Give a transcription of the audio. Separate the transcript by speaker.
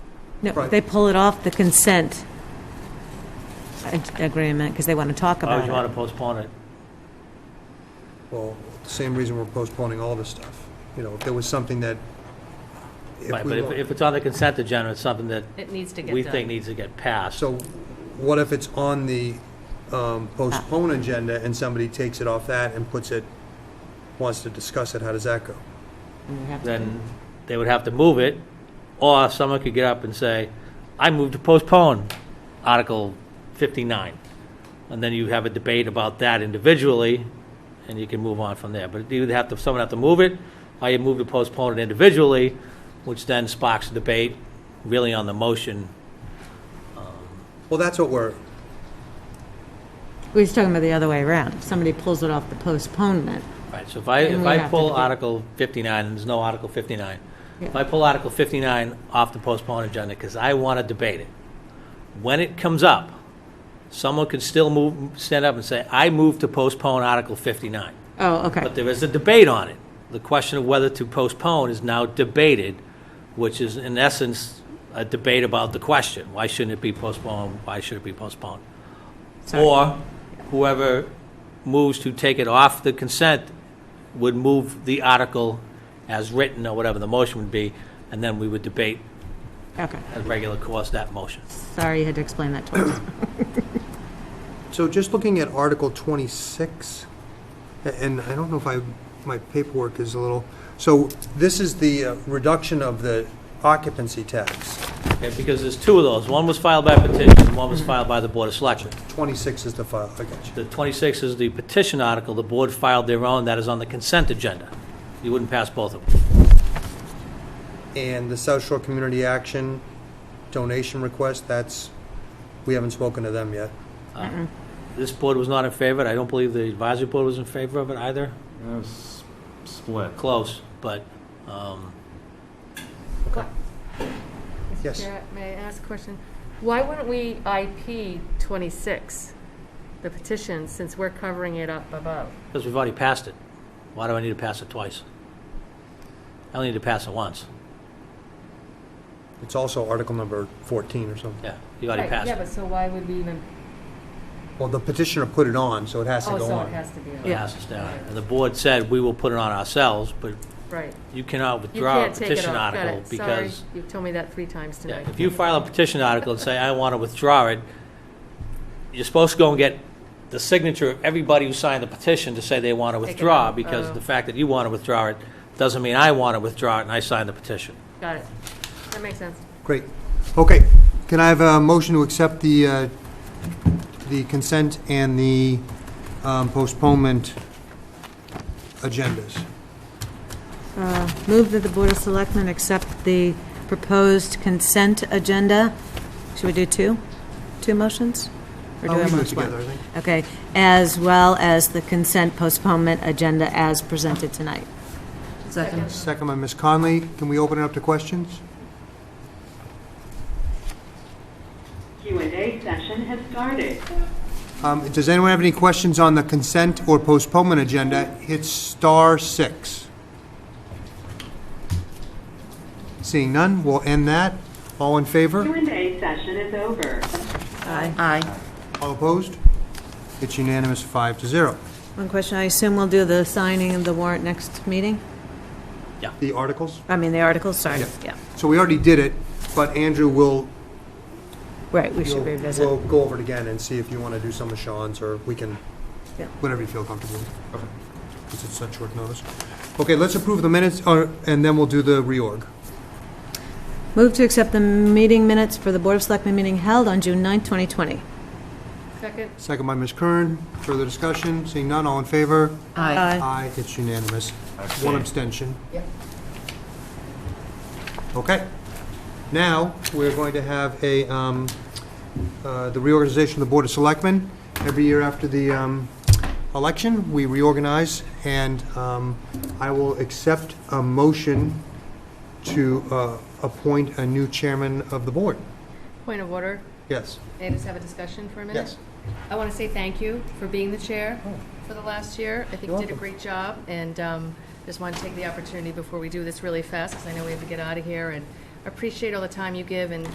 Speaker 1: No,
Speaker 2: Right.
Speaker 1: they pull it off the consent ag- agreement because they want to talk
Speaker 3: Why would
Speaker 1: about
Speaker 3: Oh, you want
Speaker 1: it.
Speaker 3: to postpone it?
Speaker 2: Well, the same reason we're postponing all this stuff. You know, if there was something that, if
Speaker 3: Right, but
Speaker 2: we,
Speaker 3: if,
Speaker 2: wa-
Speaker 3: if it's on the consent agenda, it's something that
Speaker 4: It needs to get done.
Speaker 3: we think needs to get passed.
Speaker 2: so what if it's on the um, postpone agenda and somebody takes it off that and puts it, wants to discuss it, how does that go?
Speaker 3: then they would have to move it, or someone could get up and say, I move to postpone Article 59. And then you have a debate about that individually, and you can move on from there. But you would have to, someone have to move it, or you move to postpone it individually, which then sparks a debate really on the motion.
Speaker 2: Well, that's what we're,
Speaker 1: We was talking about the other way around. If somebody pulls it off the postponement,
Speaker 3: Right, so if I,
Speaker 1: Then
Speaker 3: if
Speaker 1: we
Speaker 3: I
Speaker 1: have to
Speaker 3: pull
Speaker 1: debate.
Speaker 3: Article 59, and there's no Article 59, if
Speaker 1: Yeah.
Speaker 3: I pull Article 59 off the postponed agenda, because I want to debate it, when it comes up, someone could still move, stand up and say, I move to postpone Article 59.
Speaker 1: oh, okay.
Speaker 3: But there is a debate on it. The question of whether to postpone is now debated, which is in essence a debate about the question. Why shouldn't it be postponed? Why should it be postponed?
Speaker 1: Sorry.
Speaker 3: Or whoever moves to take it off the consent would move the article as written or whatever the motion would be, and then we would debate
Speaker 1: Okay.
Speaker 3: at regular course that motion.
Speaker 1: Sorry you had to explain that to us.
Speaker 2: so just looking at Article 26, a- and I don't know if I, my paperwork is a little, so this is the uh, reduction of the occupancy tax.
Speaker 3: Okay, because there's two of those. One was filed by petition, and one was filed by the Board of Selectmen.
Speaker 2: 26 is the file, I got you.
Speaker 3: The 26 is the petition article, the board filed their own, that is on the consent agenda. You wouldn't pass both of them.
Speaker 2: And the South Shore Community Action donation request, that's, we haven't spoken to them yet.
Speaker 3: This board was not in favor, of it. I don't believe the advisory board was in favor of it either,
Speaker 5: That was split.
Speaker 3: close, but, um,
Speaker 4: Mr.
Speaker 2: Yes.
Speaker 4: Chair, May I ask a question? Why wouldn't we IP 26, the petition, since we're covering it up above?
Speaker 3: because we've already passed it. Why do I need to pass it twice? I only need to pass it once,
Speaker 2: It's also article number 14 or something.
Speaker 3: yeah, you already
Speaker 4: Right,
Speaker 3: passed
Speaker 4: Yeah,
Speaker 3: it.
Speaker 4: but so why would we even,
Speaker 2: Well, the petitioner put it on, so it has to
Speaker 4: oh,
Speaker 2: go
Speaker 4: so it
Speaker 2: on.
Speaker 4: has to be
Speaker 3: It
Speaker 4: on,
Speaker 1: Yeah.
Speaker 3: passes down. And the board said, we will put it on ourselves, but
Speaker 4: right.
Speaker 3: you cannot
Speaker 4: You
Speaker 3: withdraw a
Speaker 4: can't take it
Speaker 3: petition
Speaker 4: off, got
Speaker 3: article
Speaker 4: it, sorry,
Speaker 3: because
Speaker 4: you've told me that three times
Speaker 3: Yeah,
Speaker 4: tonight.
Speaker 3: if you file a petition article and say, I want to withdraw it, you're supposed to go and get the signature of everybody who signed the petition to say they want to
Speaker 4: it
Speaker 3: withdraw,
Speaker 4: out.
Speaker 3: because
Speaker 4: Oh.
Speaker 3: the fact that you want to withdraw it doesn't mean I want to withdraw it and I signed the petition.
Speaker 4: Got it, that makes sense.
Speaker 2: Great. Okay, can I have a motion to accept the, uh, the consent and the um, postponement agendas?
Speaker 1: Uh, Move that the Board of Selectmen accept the proposed consent agenda. Should we do two? Two motions? Or do
Speaker 2: I'll
Speaker 1: I
Speaker 2: leave Oh, it
Speaker 1: want
Speaker 2: together,
Speaker 1: one?
Speaker 2: I think.
Speaker 1: Okay, as well as the consent postponement agenda as presented tonight. Second.
Speaker 2: Second by Ms. Conley. Can we open it up to questions?
Speaker 6: Q&A session has started.
Speaker 2: Um, Does anyone have any questions on the consent or postponement agenda? Hit star six. Seeing none, we'll end that. All in favor?
Speaker 6: Q&A session is over.
Speaker 1: Aye.
Speaker 2: All opposed? It's unanimous, five to zero.
Speaker 1: One question, I assume we'll do the signing of the warrant next meeting?
Speaker 2: The articles?
Speaker 1: I mean, the articles, sorry,
Speaker 2: Yeah.
Speaker 1: yeah.
Speaker 2: So we already did it, but Andrew will,
Speaker 1: Right, we should revisit.
Speaker 2: will go over it again and see if you want to do some of Sean's, or we can,
Speaker 1: Yeah.
Speaker 2: whatever you feel comfortable with. Because it's such short notice. Okay, let's approve the minutes, or- and then we'll do the reorg.
Speaker 1: Move to accept the meeting minutes for the Board of Selectmen meeting held on June 9th, 2020.
Speaker 4: Second,
Speaker 2: Second by Ms. Kern. Further discussion? Seeing none, all in favor?
Speaker 1: Aye.
Speaker 2: Aye, it's unanimous. One abstention.
Speaker 4: Yep.
Speaker 2: Okay. Now, we're going to have a, um, uh, the reorganization of the Board of Selectmen. Every year after the um, election, we reorganize, and um, I will accept a motion to uh, appoint a new chairman of the board.
Speaker 4: point of order,
Speaker 2: Yes?
Speaker 4: may I just have a discussion for a minute?
Speaker 2: Yes. Oh.
Speaker 4: I want to say thank you for being the chair for the last year. I think
Speaker 2: You're
Speaker 4: you did a
Speaker 2: welcome.
Speaker 4: great job, and um, just want to take the opportunity before we do this really fast, because I know we have to get out of here, and appreciate all the time you give and